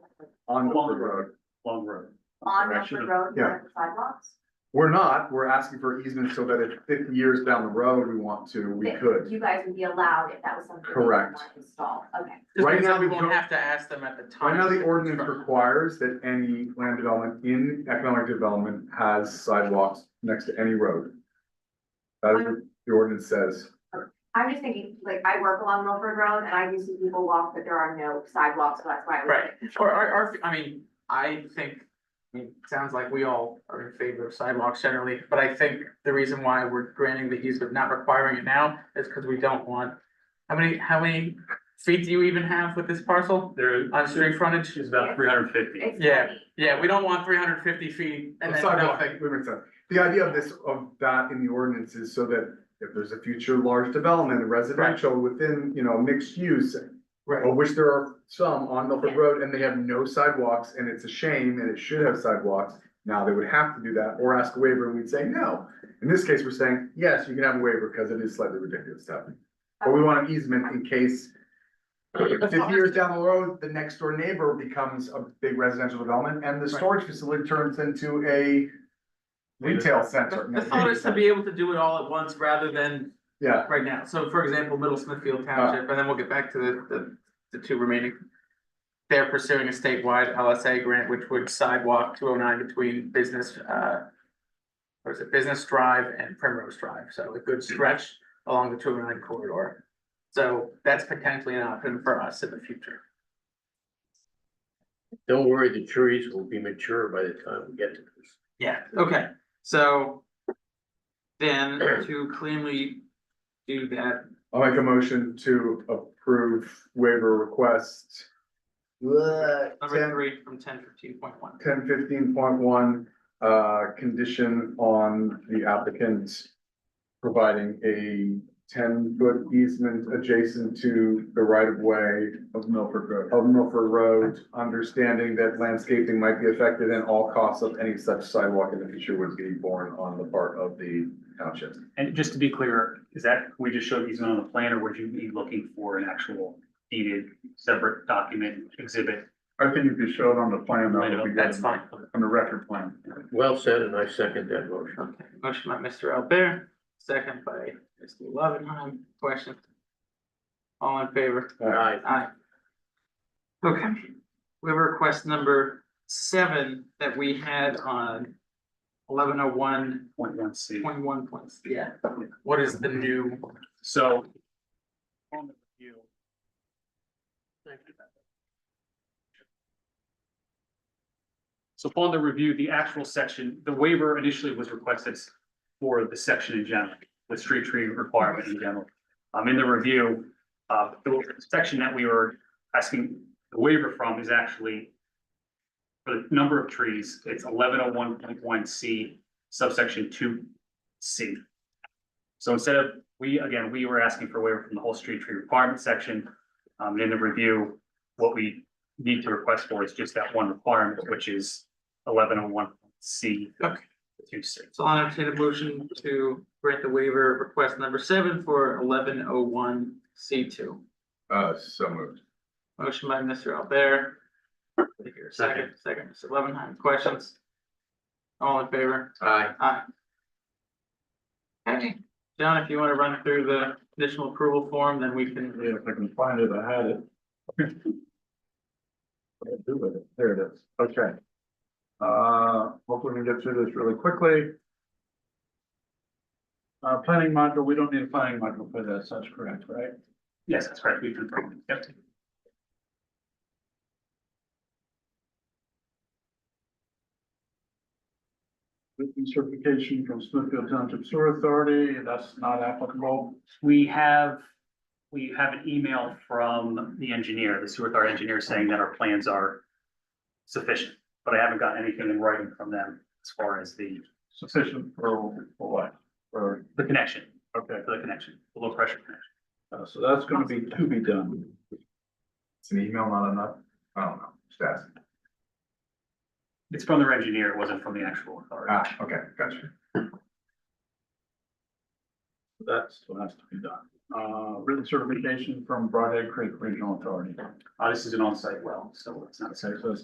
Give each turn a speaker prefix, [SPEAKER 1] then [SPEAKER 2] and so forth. [SPEAKER 1] on the
[SPEAKER 2] Long
[SPEAKER 1] road.
[SPEAKER 2] Road, Long Road.
[SPEAKER 3] on
[SPEAKER 2] I
[SPEAKER 3] Milford
[SPEAKER 2] should've-
[SPEAKER 3] Road,
[SPEAKER 1] yeah.
[SPEAKER 3] with sidewalks?
[SPEAKER 1] We're not, we're asking for easement so that if fifty years down the road we want to, we
[SPEAKER 3] That
[SPEAKER 1] could.
[SPEAKER 3] You guys would be allowed if that was something. that you
[SPEAKER 1] Correct.
[SPEAKER 3] want to Install, okay.
[SPEAKER 4] Just
[SPEAKER 1] Right
[SPEAKER 4] means
[SPEAKER 1] now
[SPEAKER 4] that we
[SPEAKER 1] we
[SPEAKER 4] won't
[SPEAKER 1] don't-
[SPEAKER 4] have to ask them at the time.
[SPEAKER 1] Right now, the
[SPEAKER 4] of
[SPEAKER 1] ordinance
[SPEAKER 4] construction.
[SPEAKER 1] requires that any land development in economic development has sidewalks next to any road. That is what the ordinance says.
[SPEAKER 3] I'm just thinking, like, I work along Milford Road and I do see people walk, but there are no sidewalks, so that's why I was
[SPEAKER 4] Right,
[SPEAKER 3] like.
[SPEAKER 4] or, or, or, I mean, I think, I mean, it sounds like we all are in favor of sidewalks generally, but I think the reason why we're granting the easement, not requiring it now, is because we don't want. How many, how many feet do you even have with this parcel
[SPEAKER 2] There
[SPEAKER 4] on street frontage?
[SPEAKER 2] is about three hundred and fifty.
[SPEAKER 3] it's
[SPEAKER 4] Yeah.
[SPEAKER 3] funny.
[SPEAKER 4] Yeah, we don't want three hundred fifty feet and then
[SPEAKER 1] Oh, Sidewalk,
[SPEAKER 4] nothing.
[SPEAKER 1] that makes sense. The idea of this, of that in the ordinance is so that if there's a future large development residential within, you know, mixed use.
[SPEAKER 4] Right.
[SPEAKER 1] Of which there are some on Milford
[SPEAKER 3] Yeah.
[SPEAKER 1] Road and they have no sidewalks and it's a shame and it should have sidewalks. Now they would have to do that or ask a waiver and we'd say no. In this case, we're saying, yes, you can have a waiver because it is slightly ridiculous to have. it. But we want an easement in case. Fifty years down the road, the next door neighbor becomes a big residential development and the storage facility turns into a. Retail center.
[SPEAKER 4] The thought is to be able to do it all at once rather than
[SPEAKER 1] Yeah,
[SPEAKER 4] right now. So for example, Middle Smithfield Township, and then we'll get back to the, the, the two remaining. They're pursuing a statewide LSA grant, which would sidewalk two oh nine between business, uh. Or is it Business Drive and Primrose Drive, so a good stretch along the two oh nine corridor. So that's potentially an option for us in the future.
[SPEAKER 5] Don't worry, the trees will be mature by the time we get to this.
[SPEAKER 4] Yeah, okay, so. Then to cleanly do that,
[SPEAKER 1] I'll make a motion to approve waiver request.
[SPEAKER 4] number three from ten fifteen point one.
[SPEAKER 1] Ten fifteen point one, uh, condition on the applicant. Providing a ten foot easement adjacent to the right of way
[SPEAKER 2] Of Milford Road.
[SPEAKER 1] of Milford Road. Understanding that landscaping might be affected and all costs of any such sidewalk in the future would be borne on the part of the township.
[SPEAKER 2] And just to be clear, is that, we just showed easement on the plan, or would you be looking for an actual dated, separate document exhibit?
[SPEAKER 6] I think if you show it on the plan, that would be
[SPEAKER 4] That's
[SPEAKER 6] good,
[SPEAKER 4] fine.
[SPEAKER 6] on the record plan.
[SPEAKER 5] Well said, and I second that motion.
[SPEAKER 4] Okay, motion by Mr. Albert, second by Mr. Loveenheim, question. All in favor?
[SPEAKER 5] Aye.
[SPEAKER 4] Aye. Okay, we have request number seven that we had on eleven oh one
[SPEAKER 2] Point one C.
[SPEAKER 4] point one point, yeah. What is the new?
[SPEAKER 2] So. on the review, So upon the review, the actual section, the waiver initially was requested for the section in general, the street tree requirement in general. Um, in the review, uh, the section that we were asking the waiver from is actually for the number of trees, it's eleven oh one point one C subsection two C. So instead of, we, again, we were asking for a waiver from the whole street tree requirement section. Um, in the review, what we need to request for is just that one requirement, which is eleven oh one C.
[SPEAKER 4] Okay.
[SPEAKER 2] Two C.
[SPEAKER 4] So I'll entertain a motion to grant the waiver of request number seven for eleven oh one C two.
[SPEAKER 1] Uh, so moved.
[SPEAKER 4] Motion by Mr. Albert. Take your second, second, Mr. Levenheim, questions? All in favor?
[SPEAKER 5] Aye.
[SPEAKER 4] Aye. Okay, John, if you wanna run through the conditional approval form, then we can,
[SPEAKER 6] If I can find it, I had it. What did I do with it? There it is, okay. Uh, hopefully we can get through this really quickly. Uh, planning module, we don't need a planning module for this, that's correct, right?
[SPEAKER 2] Yes, that's correct. We've confirmed. Yep.
[SPEAKER 6] Written certification from Smithfield Township Sewer Authority, that's not applicable.
[SPEAKER 2] We have, we have an email from the engineer, the sewer authority engineer saying that our plans are sufficient, but I haven't got anything in writing from them as far as the,
[SPEAKER 6] Sufficient for, for what? For,
[SPEAKER 2] the connection,
[SPEAKER 6] okay,
[SPEAKER 2] for the connection, the low pressure connection.
[SPEAKER 6] uh, so that's gonna be to be done.
[SPEAKER 1] It's an email, not enough. I don't know, just ask.
[SPEAKER 2] It's from their engineer, it wasn't from the actual authority.
[SPEAKER 1] Ah, okay, gotcha.
[SPEAKER 6] That's what has to be done. Uh, written certification from Broadhead Creek Regional Authority.
[SPEAKER 2] Uh, this is an on-site well, so it's not a
[SPEAKER 6] Okay, so it's